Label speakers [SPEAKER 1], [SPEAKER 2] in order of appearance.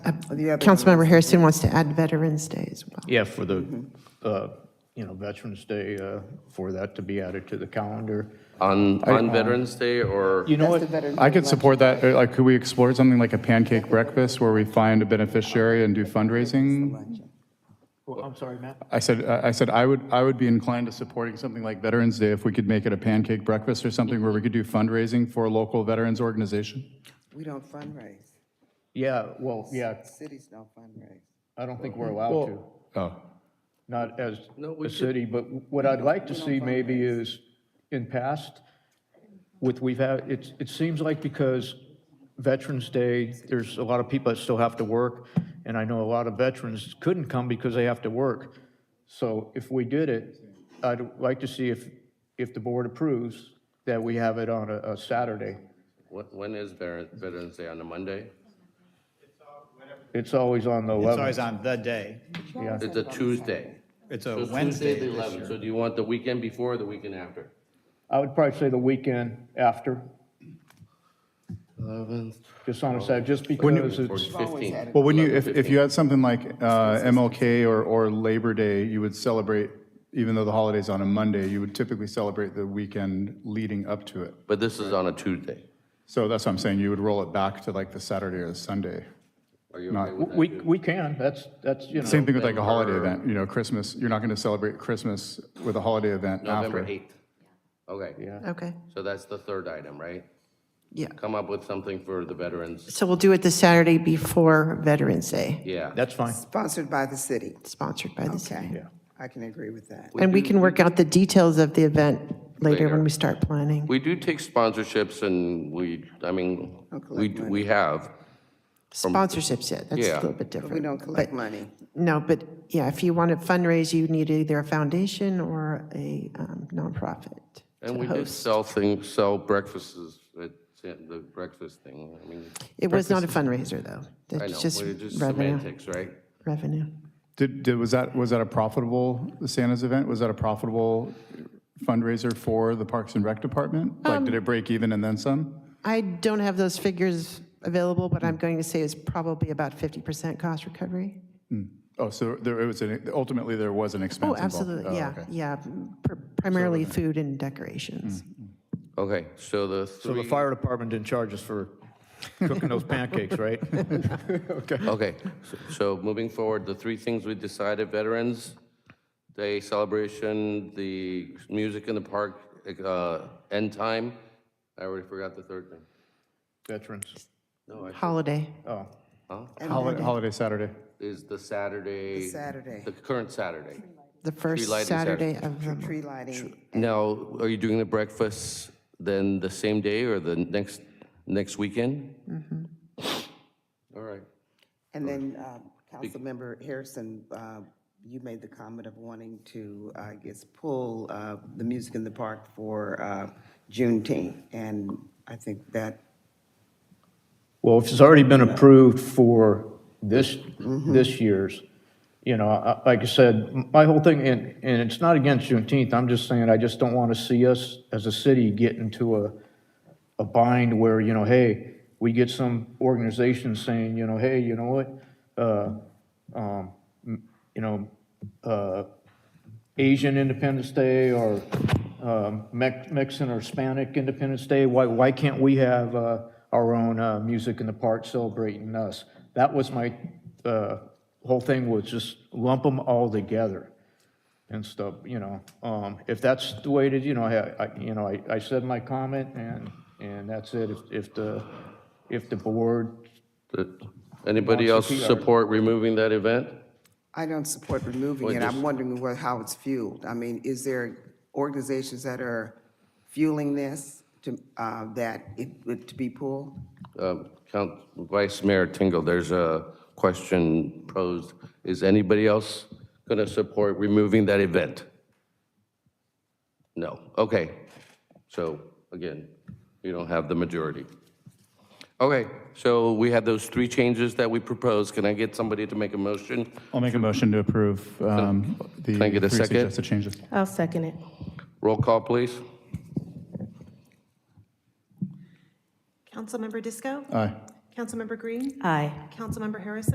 [SPEAKER 1] I-
[SPEAKER 2] Oh, The other
[SPEAKER 1] Uh, Councilmember Harrison wants to add Veterans Day as well.
[SPEAKER 3] Yeah, for the, uh, you know, Veterans Day, uh, for that to be added to the calendar.
[SPEAKER 4] On,
[SPEAKER 3] um,
[SPEAKER 4] on Veterans Day or?
[SPEAKER 5] You know
[SPEAKER 2] That's
[SPEAKER 5] what?
[SPEAKER 2] the Veterans
[SPEAKER 5] I
[SPEAKER 2] Day
[SPEAKER 5] could support that. Uh, Like, could we explore something like a pancake breakfast where we find a beneficiary and do fundraising?
[SPEAKER 6] Well, I'm sorry, Matt.
[SPEAKER 5] I said, uh, I I said, I would, I would be inclined to supporting something like Veterans Day if we could make it a pancake breakfast or something where we could do fundraising for a local veterans organization.
[SPEAKER 2] We don't fundraise.
[SPEAKER 3] Yeah, well, yeah,
[SPEAKER 2] Cities don't fundraise.
[SPEAKER 3] I don't think we're allowed to,
[SPEAKER 5] Oh,
[SPEAKER 3] not as
[SPEAKER 4] No, we
[SPEAKER 3] a
[SPEAKER 4] could-
[SPEAKER 3] city, but what I'd like to see maybe is, in past, with we've had, it, it seems like because Veterans Day, there's a lot of people that still have to work, and I know a lot of veterans couldn't come because they have to work. So if we did it, I'd like to see if, if the board approves, that we have it on a, a Saturday.
[SPEAKER 4] Wh- When is Veter- Veterans Day? On a Monday?
[SPEAKER 3] It's always on the
[SPEAKER 7] It's always
[SPEAKER 3] 11th.
[SPEAKER 7] on the day.
[SPEAKER 4] It's a Tuesday.
[SPEAKER 7] It's
[SPEAKER 4] So
[SPEAKER 7] a
[SPEAKER 4] it's Tuesday,
[SPEAKER 7] Wednesday
[SPEAKER 4] the
[SPEAKER 7] this
[SPEAKER 4] 11th.
[SPEAKER 7] year.
[SPEAKER 4] So do you want the weekend before or the weekend after?
[SPEAKER 3] I would probably say the weekend after,
[SPEAKER 4] 11th.
[SPEAKER 3] just on a Saturday, just because it's,
[SPEAKER 4] 15th.
[SPEAKER 5] well, wouldn't you, if, if you had something like uh, MLK or, or Labor Day, you would celebrate, even though the holiday's on a Monday, you would typically celebrate the weekend leading up to it.
[SPEAKER 4] But this is on a Tuesday.
[SPEAKER 5] So that's what I'm saying, you would roll it back to like the Saturday or the Sunday.
[SPEAKER 4] Are you okay with that?
[SPEAKER 3] we, we can, that's, that's, you know.
[SPEAKER 5] Same thing with like a holiday event, you know, Christmas, you're not going to celebrate Christmas with a holiday event
[SPEAKER 4] November
[SPEAKER 5] after.
[SPEAKER 4] 8th. Okay,
[SPEAKER 1] Okay,
[SPEAKER 4] so that's the third item, right?
[SPEAKER 1] yeah.
[SPEAKER 4] Come up with something for the veterans.
[SPEAKER 1] So we'll do it the Saturday before Veterans Day,
[SPEAKER 4] Yeah.
[SPEAKER 3] That's fine.
[SPEAKER 2] Sponsored by the city.
[SPEAKER 1] sponsored by the city.
[SPEAKER 2] Okay. I can agree with that.
[SPEAKER 1] And we can work out the details of the event later when
[SPEAKER 4] Later.
[SPEAKER 1] we start planning.
[SPEAKER 4] We do take sponsorships and we, I mean, we,
[SPEAKER 2] collect money.
[SPEAKER 4] we have.
[SPEAKER 1] Sponsorships, yeah, that's a
[SPEAKER 4] Yeah.
[SPEAKER 1] little bit
[SPEAKER 2] We
[SPEAKER 1] different.
[SPEAKER 2] don't collect money.
[SPEAKER 1] No, but yeah, if you want to fundraise, you need either a foundation or a um, nonprofit
[SPEAKER 4] And
[SPEAKER 1] to
[SPEAKER 4] we did
[SPEAKER 1] host.
[SPEAKER 4] sell things, sell breakfasts, at San- the breakfast thing. I mean,
[SPEAKER 1] It was not a fundraiser, though.
[SPEAKER 4] I
[SPEAKER 1] That's
[SPEAKER 4] know,
[SPEAKER 1] just
[SPEAKER 4] we're just
[SPEAKER 1] revenue,
[SPEAKER 4] semantics, right?
[SPEAKER 1] revenue.
[SPEAKER 5] Did, did, was that, was that a profitable, the Santa's event, was that a profitable fundraiser for the Parks and Rec Department? Like,
[SPEAKER 1] Um,
[SPEAKER 5] did it break even and then some?
[SPEAKER 1] I don't have those figures available, but I'm going to say it's probably about 50% cost recovery.
[SPEAKER 5] Oh, so there, it was, an- ultimately, there was an expense
[SPEAKER 1] Oh,
[SPEAKER 5] involved?
[SPEAKER 1] absolutely, yeah,
[SPEAKER 5] okay.
[SPEAKER 1] yeah, pr- primarily food and decorations.
[SPEAKER 4] Okay, so the
[SPEAKER 3] So the
[SPEAKER 4] three,
[SPEAKER 3] fire department didn't charge us for cooking those pancakes, right?
[SPEAKER 4] okay, so- so moving forward, the three things we decided, Veterans Day celebration, the music in the park, uh, end time. I already forgot the third thing.
[SPEAKER 3] Veterans,
[SPEAKER 4] No, I-
[SPEAKER 1] Holiday,
[SPEAKER 3] oh,
[SPEAKER 5] Holi- Holiday Saturday.
[SPEAKER 4] is the Saturday.
[SPEAKER 2] Saturday.
[SPEAKER 4] The current Saturday.
[SPEAKER 1] the first
[SPEAKER 4] lighting
[SPEAKER 1] Saturday of the month.
[SPEAKER 2] Tree lighting,
[SPEAKER 4] Now, are you doing the breakfast then the same day or the next, next weekend? All right.
[SPEAKER 2] and then uh, Councilmember Harrison, uh, you made the comment of wanting to, uh, I guess, pull uh, the music in the park for uh, Juneteenth, and I think that
[SPEAKER 3] well, if it's already been approved for this, this year's, you know, I- like I said, my whole thing, and, and it's not against Juneteenth, I'm just saying, I just don't want to see us as a city get into a, a bind where, you know, hey, we get some organization saying, you know, hey, you know what? uh, um, m- You know, uh, Asian Independence Day or um, Mex- Mexican or Hispanic Independence Day, why, why can't we have uh, our own uh, music in the park celebrating us? That was my, uh, whole thing was just lump them all together and stuff, you know. Um, If that's the way to, you know, I, I- you know, I I said my comment and, and that's it. If- If the, if the board
[SPEAKER 4] The- Anybody else support removing that event?
[SPEAKER 2] I don't support removing it. I'm wondering what, how it's fueled. I mean, is there organizations that are fueling this to, uh, that it would to be pulled?
[SPEAKER 4] Um, Count, Vice Mayor Tingle, there's a question posed. Is anybody else going to support removing that event? No, okay. So again, you don't have the majority. Okay, so we have those three changes that we proposed. Can I get somebody to make a motion?
[SPEAKER 5] I'll make a motion to approve um, the
[SPEAKER 4] Can I get a
[SPEAKER 5] three
[SPEAKER 4] second?
[SPEAKER 5] suggested changes.
[SPEAKER 8] I'll second it.
[SPEAKER 4] Roll call, please.
[SPEAKER 9] Councilmember Disco?
[SPEAKER 5] Aye.
[SPEAKER 9] Councilmember Green?
[SPEAKER 8] Aye.
[SPEAKER 9] Councilmember Harrison?